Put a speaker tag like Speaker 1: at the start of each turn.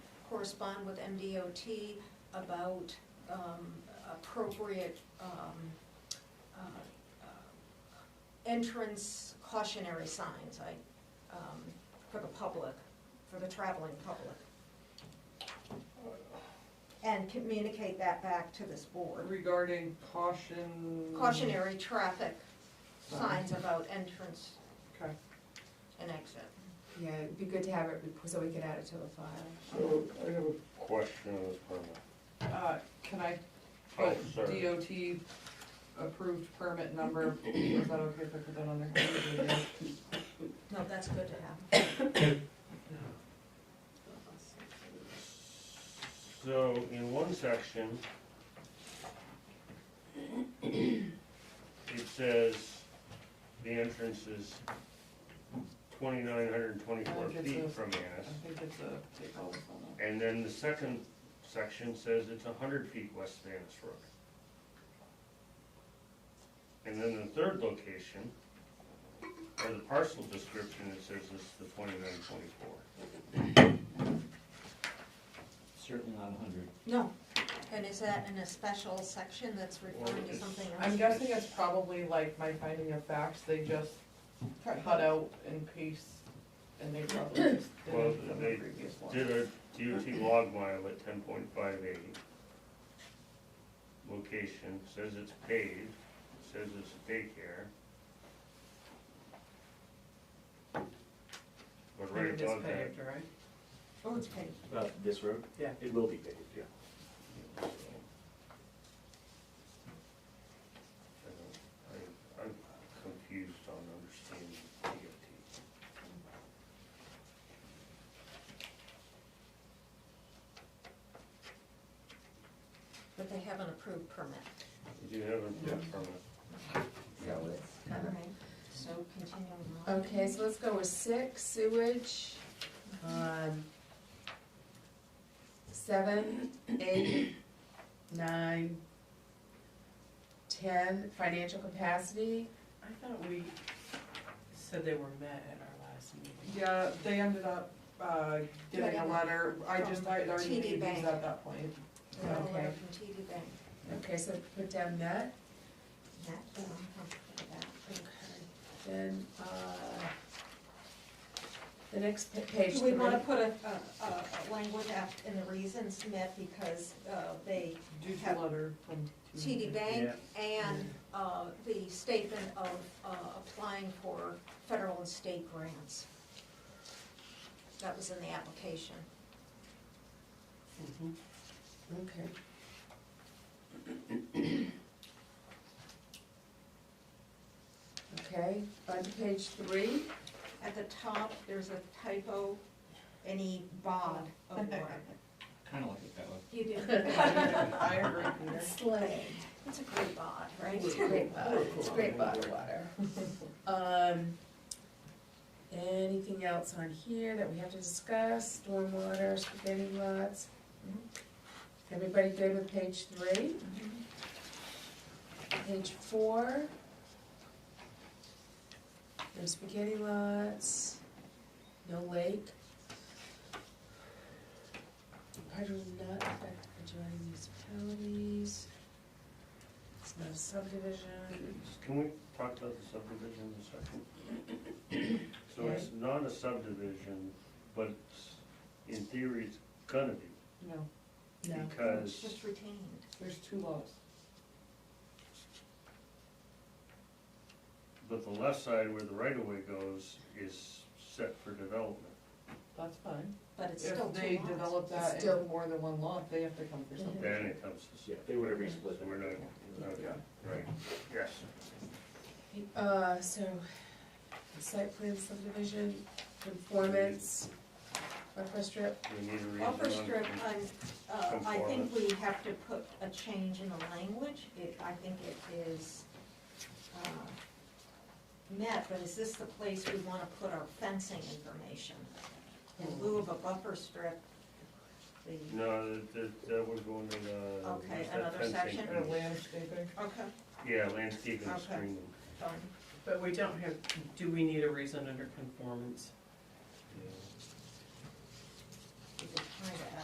Speaker 1: correspond with MDOT about um, appropriate um, uh, uh, entrance cautionary signs, I, um, for the public, for the traveling public. And communicate that back to this board.
Speaker 2: Regarding caution.
Speaker 1: Cautionary traffic signs about entrance
Speaker 2: Okay,
Speaker 1: and exit.
Speaker 3: Yeah, it'd be good to have it, rep- so we could add it to the file.
Speaker 4: So I have a question on this permit.
Speaker 2: uh, can I
Speaker 4: Oh,
Speaker 2: put
Speaker 4: sorry.
Speaker 2: DOT approved permit number, is that okay if I put that on there?
Speaker 1: No, that's good to have.
Speaker 4: So in one section, it says the entrance is twenty-nine hundred and twenty-four
Speaker 2: I think
Speaker 4: feet
Speaker 2: it's a-
Speaker 4: from
Speaker 2: I
Speaker 4: Annis.
Speaker 2: think it's a, take all this on there.
Speaker 4: And then the second section says it's a hundred feet west of Annis Road. And then the third location, or the parcel description, it says it's the twenty-nine twenty-four.
Speaker 5: Certainly not a hundred.
Speaker 1: No, and is that in a special section that's referring to
Speaker 4: is-
Speaker 1: something else?
Speaker 2: I'm guessing it's probably like my finding of facts, they just cut out in paste, and they probably just did
Speaker 4: Well,
Speaker 2: it from the
Speaker 4: they
Speaker 2: previous one.
Speaker 4: Did a DOT log mile at ten point five eight. Location, says it's paved, says it's a daycare. But right above that,
Speaker 2: right?
Speaker 1: Oh, it's paid.
Speaker 5: Uh, this road?
Speaker 2: Yeah.
Speaker 5: It will be paved, yeah.
Speaker 4: I, I'm confused on understanding DOT.
Speaker 1: But they haven't approved permit.
Speaker 4: Do you have a permit?
Speaker 3: So let's
Speaker 1: All right, so continuing on.
Speaker 3: Okay, so let's go with six, sewage. Um, Seven, eight, nine, ten, financial capacity.
Speaker 6: I thought we said they were met at our last meeting.
Speaker 2: Yeah, they ended up, uh, getting a
Speaker 1: Getting a-
Speaker 2: letter, I just, I had already
Speaker 1: TD
Speaker 2: made these
Speaker 1: Bank.
Speaker 2: at that point.
Speaker 1: We have a letter
Speaker 3: Okay.
Speaker 1: From TD Bank.
Speaker 3: Okay, so put down that,
Speaker 1: That, um, I'll put that.
Speaker 3: then, uh, the next pa- page.
Speaker 1: Do we wanna
Speaker 3: three.
Speaker 1: put a, a, a- a language app in the reasons met because, uh, they,
Speaker 2: Due
Speaker 1: Have-
Speaker 2: to letter from.
Speaker 3: Mm-hmm.
Speaker 1: TD Bank and, uh, the statement of, uh, applying for federal and state grants. That was in the application.
Speaker 2: Mhm.
Speaker 3: Okay. Okay, on to page three,
Speaker 1: At the top, there's a typo, any bod of water.
Speaker 5: Kinda like it that way.
Speaker 1: You do.
Speaker 2: I agree, Peter.
Speaker 3: slang.
Speaker 1: It's a great bod, right?
Speaker 3: It's great bottle, it's great bottle water. Um, anything else on here that we have to discuss, stormwater, spaghetti lots? Mm-hmm. Everybody good with page three? Page four? No spaghetti lots, no lake. Hydro will not affect adjoining municipalities. It's not a subdivision.
Speaker 4: Can we talk about the subdivision in a second? So it's not a subdivision, but it's- in theory, it's gonna be,
Speaker 2: No,
Speaker 3: No.
Speaker 1: It's
Speaker 4: because
Speaker 1: just retained.
Speaker 2: there's two laws.
Speaker 4: But the left side where the right of way goes is set for development.
Speaker 2: That's fine.
Speaker 1: But it's still
Speaker 2: If they
Speaker 1: two lots.
Speaker 2: develop
Speaker 3: It's
Speaker 2: that
Speaker 3: still-
Speaker 2: in more than one lot, they have to come for something.
Speaker 4: Then it comes to,
Speaker 5: Yeah,
Speaker 4: set.
Speaker 5: they would have resplit
Speaker 4: so
Speaker 5: it.
Speaker 4: we're not, okay, right, yes.
Speaker 3: Uh, so, site plan subdivision, conformance, buffer strip,
Speaker 4: We need a reason
Speaker 1: Buffer
Speaker 4: on-
Speaker 1: strip, I'm, uh, I think
Speaker 4: Conformance.
Speaker 1: we have to put a change in the language. It, I think it is, uh, met, but is this the place we wanna put our fencing information? In lieu of a buffer strip, the,
Speaker 4: No, that- that, that was going in, uh.
Speaker 1: Okay,
Speaker 4: where's that
Speaker 1: another
Speaker 4: fencing
Speaker 1: section?
Speaker 2: Or
Speaker 4: thing?
Speaker 2: landscaping.
Speaker 1: okay,
Speaker 4: Yeah, landscaping
Speaker 1: Okay.
Speaker 4: screening.
Speaker 1: done.
Speaker 6: But we don't have, do we need a reason under conformance?
Speaker 4: yeah.
Speaker 1: We could try to